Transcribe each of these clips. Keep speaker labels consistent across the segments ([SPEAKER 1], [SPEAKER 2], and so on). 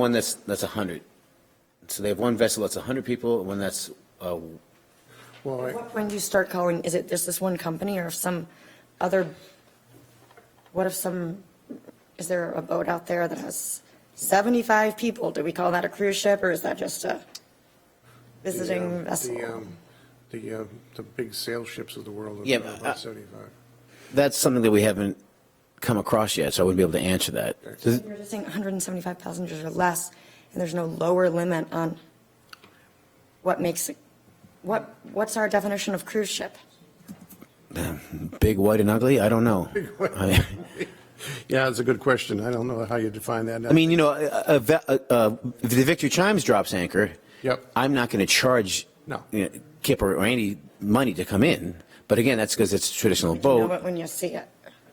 [SPEAKER 1] One that's, that's 100. So they have one vessel that's 100 people, and one that's, uh,
[SPEAKER 2] Well, I-
[SPEAKER 3] When do you start calling, is it just this one company or if some other, what if some, is there a boat out there that has 75 people? Do we call that a cruise ship or is that just a
[SPEAKER 2] the,
[SPEAKER 3] visiting
[SPEAKER 2] um, The,
[SPEAKER 3] vessel?
[SPEAKER 2] um, the, uh, the big sail ships of the world
[SPEAKER 1] Yeah,
[SPEAKER 2] are
[SPEAKER 1] but, uh,
[SPEAKER 2] about 75.
[SPEAKER 1] that's something that we haven't come across yet, so I wouldn't be able to answer that. Does-
[SPEAKER 3] You're just saying 175 passengers or less and there's no lower limit on what makes, it- what, what's our definition of cruise ship?
[SPEAKER 1] Big, white, and ugly? I don't know. I
[SPEAKER 2] Yeah, that's a good question. I don't know how you define that.
[SPEAKER 1] I mean, you know, a- a ve- a- a- if the Victory Chimes drops anchor,
[SPEAKER 2] Yep.
[SPEAKER 1] I'm not going to charge
[SPEAKER 2] No.
[SPEAKER 1] you know, Kip or Randy money to come in. But again, that's because it's a traditional
[SPEAKER 3] You know
[SPEAKER 1] boat.
[SPEAKER 3] it when you see it.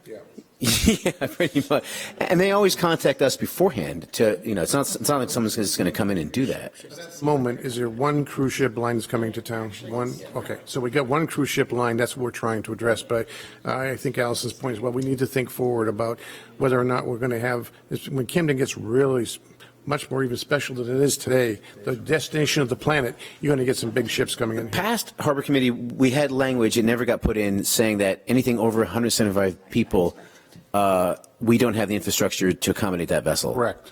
[SPEAKER 2] Yeah.
[SPEAKER 1] Yeah, pretty much. And they always contact us beforehand to, you know, it's not, it's not like someone's just going to come in and do that.
[SPEAKER 2] Moment, is there one cruise ship line that's coming to town? One, okay, so we got one cruise ship line, that's what we're trying to address, but I think Allison's point is, well, we need to think forward about whether or not we're going to have, it's- when Camden gets really s- much more even special than it is today, the destination of the planet, you're going to get some big ships coming in.
[SPEAKER 1] Past Harbor Committee, we had language, it never got put in, saying that anything over 175 people, uh, we don't have the infrastructure to accommodate that vessel.
[SPEAKER 2] Correct.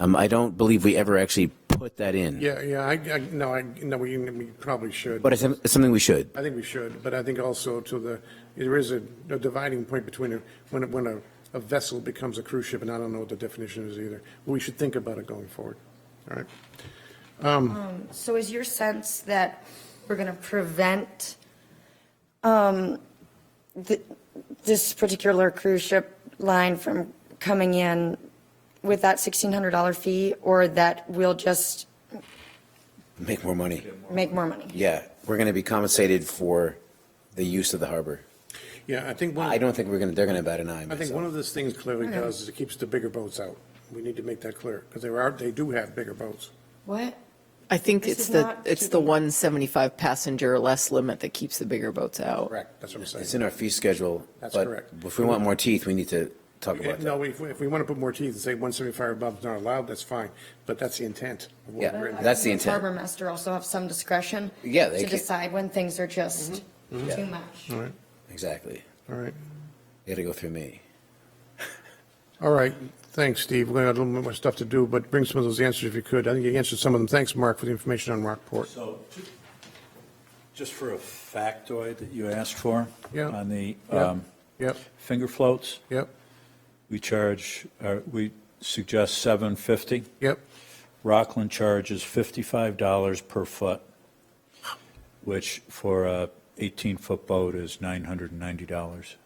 [SPEAKER 1] Um, I don't believe we ever actually put that in.
[SPEAKER 2] Yeah, yeah, I, I, no, I, no, we, we probably should.
[SPEAKER 1] But it's it's something we should.
[SPEAKER 2] I think we should, but I think also to the, there is a a dividing point between a- when, a- when a, a vessel becomes a cruise ship, and I don't know what the definition is either. We should think about it going forward, all right?
[SPEAKER 3] So is your sense that we're going to prevent um, th- this particular cruise ship line from coming in with that $1,600 fee, or that we'll just
[SPEAKER 1] Make more money.
[SPEAKER 3] make more money?
[SPEAKER 1] Yeah, we're going to be compensated for the use of the harbor.
[SPEAKER 2] Yeah, I think one,
[SPEAKER 1] I
[SPEAKER 2] I
[SPEAKER 1] don't think we're going to, they're going to bat an eye.
[SPEAKER 2] think
[SPEAKER 1] myself.
[SPEAKER 2] one of those things clearly does is it keeps the bigger boats out. We need to make that clear, because there are, they do have bigger boats.
[SPEAKER 3] What?
[SPEAKER 4] I think
[SPEAKER 3] This is
[SPEAKER 4] it's the,
[SPEAKER 3] not
[SPEAKER 4] it's the
[SPEAKER 3] keeping-
[SPEAKER 4] 175 passenger or less limit that keeps the bigger boats out.
[SPEAKER 2] Correct. That's what I'm saying.
[SPEAKER 1] It's in our fee schedule.
[SPEAKER 2] That's
[SPEAKER 1] but
[SPEAKER 2] correct.
[SPEAKER 1] If we want more teeth, we need to talk about that.
[SPEAKER 2] No, if, if we want to put more teeth and say 175 above is not allowed, that's fine, but that's the intent. of what
[SPEAKER 1] Yeah.
[SPEAKER 2] we're in.
[SPEAKER 1] That's the
[SPEAKER 3] Does
[SPEAKER 1] intent.
[SPEAKER 3] Harbor master also have some discretion?
[SPEAKER 1] Yeah, they
[SPEAKER 3] To
[SPEAKER 1] can- Mm-hmm.
[SPEAKER 3] decide when things are just
[SPEAKER 1] Yeah.
[SPEAKER 3] too much?
[SPEAKER 2] All right,
[SPEAKER 1] Exactly.
[SPEAKER 2] all right.
[SPEAKER 1] You got to go through me.
[SPEAKER 2] All right, thanks, Steve. We got a little bit more stuff to do, but bring some of those answers if you could. I think you answered some of them. Thanks, Mark, for the information on Rockport.
[SPEAKER 5] So, ju- just for a factoid that you asked for.
[SPEAKER 2] Yeah.
[SPEAKER 5] On the
[SPEAKER 2] Yep.
[SPEAKER 5] um,
[SPEAKER 2] Yep,
[SPEAKER 5] finger floats,
[SPEAKER 2] yep,
[SPEAKER 5] we charge, uh, we suggest 750.
[SPEAKER 2] yep.
[SPEAKER 5] Rockland charges $55 per foot, which for a 18-foot boat is $990.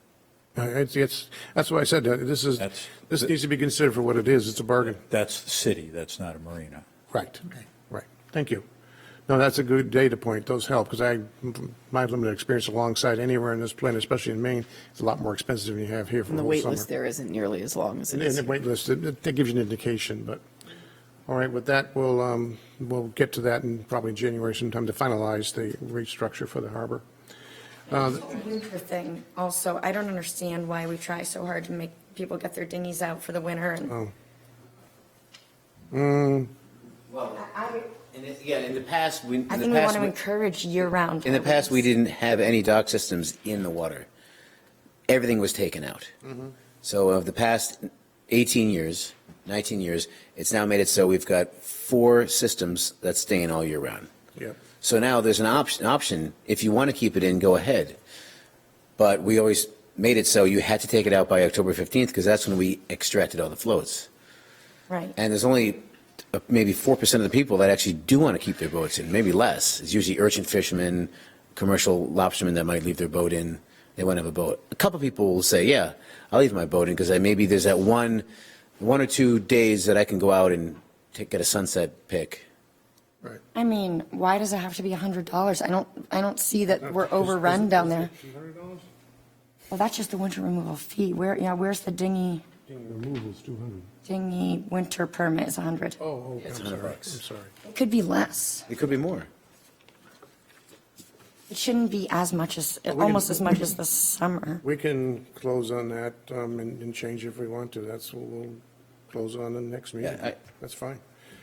[SPEAKER 2] Uh, It's, it's, that's why I said, that. this is,
[SPEAKER 5] That's-
[SPEAKER 2] this needs to be considered for what it is. It's a bargain.
[SPEAKER 5] That's the city, that's not a marina.
[SPEAKER 2] Right. Right. Thank you. No, that's a good data point. Those help, because I, my limited experience alongside anywhere in this planet, especially in Maine, it's a lot more expensive than you have here for
[SPEAKER 4] And
[SPEAKER 2] the
[SPEAKER 4] the
[SPEAKER 2] whole
[SPEAKER 4] wait
[SPEAKER 2] summer.
[SPEAKER 4] list there isn't nearly as long as it
[SPEAKER 2] And and
[SPEAKER 4] is
[SPEAKER 2] the wait list, it- it- that gives you an indication, but, all right, with that, we'll, um, we'll get to that in probably January sometime to finalize the restructure for the harbor.
[SPEAKER 3] Winter thing also, I don't understand why we try so hard to make people get their dinghies out for the winter
[SPEAKER 1] Oh.
[SPEAKER 3] and.
[SPEAKER 1] Yeah, in the past, we, in
[SPEAKER 3] I
[SPEAKER 1] the
[SPEAKER 3] think we want to
[SPEAKER 1] past,
[SPEAKER 3] encourage year-round.
[SPEAKER 1] in the past, we
[SPEAKER 3] harbors.
[SPEAKER 1] didn't have any dock systems in the water. Everything was taken out. So of the past 18 years, 19 years, it's now made it so we've got four systems that stay in all year round.
[SPEAKER 2] Yep.
[SPEAKER 1] So now there's an option, option, if you want to keep it in, go ahead. But we always made it so you had to take it out by October 15th because that's when we extracted all the floats.
[SPEAKER 3] Right.
[SPEAKER 1] And there's only uh, maybe 4% of the people that actually do want to keep their boats in, maybe less. It's usually urchin fishermen, commercial lobstermen that might leave their boat in. They won't have a boat. A couple people will say, yeah, I'll leave my boat in because maybe there's that one, one or two days that I can go out and take, get a sunset pic.
[SPEAKER 2] Right.
[SPEAKER 3] I mean, why does it have to be a hundred dollars? I don't, I don't see that we're overrun down there. Well, that's just the winter removal fee. Where, yeah, where's the dinghy,
[SPEAKER 2] Removal's 200.
[SPEAKER 3] dinghy winter permit is a hundred?
[SPEAKER 2] Oh, oh, I'm sorry,
[SPEAKER 1] 100
[SPEAKER 2] I'm
[SPEAKER 1] bucks.
[SPEAKER 2] sorry.
[SPEAKER 3] It could be less.
[SPEAKER 1] It could be more.
[SPEAKER 3] It shouldn't be as much as,
[SPEAKER 2] can-
[SPEAKER 3] almost as much as the summer.
[SPEAKER 2] We can close on that um, and and change if we want to. That's what we'll close on the next meeting.
[SPEAKER 1] Yeah, I-
[SPEAKER 2] That's fine.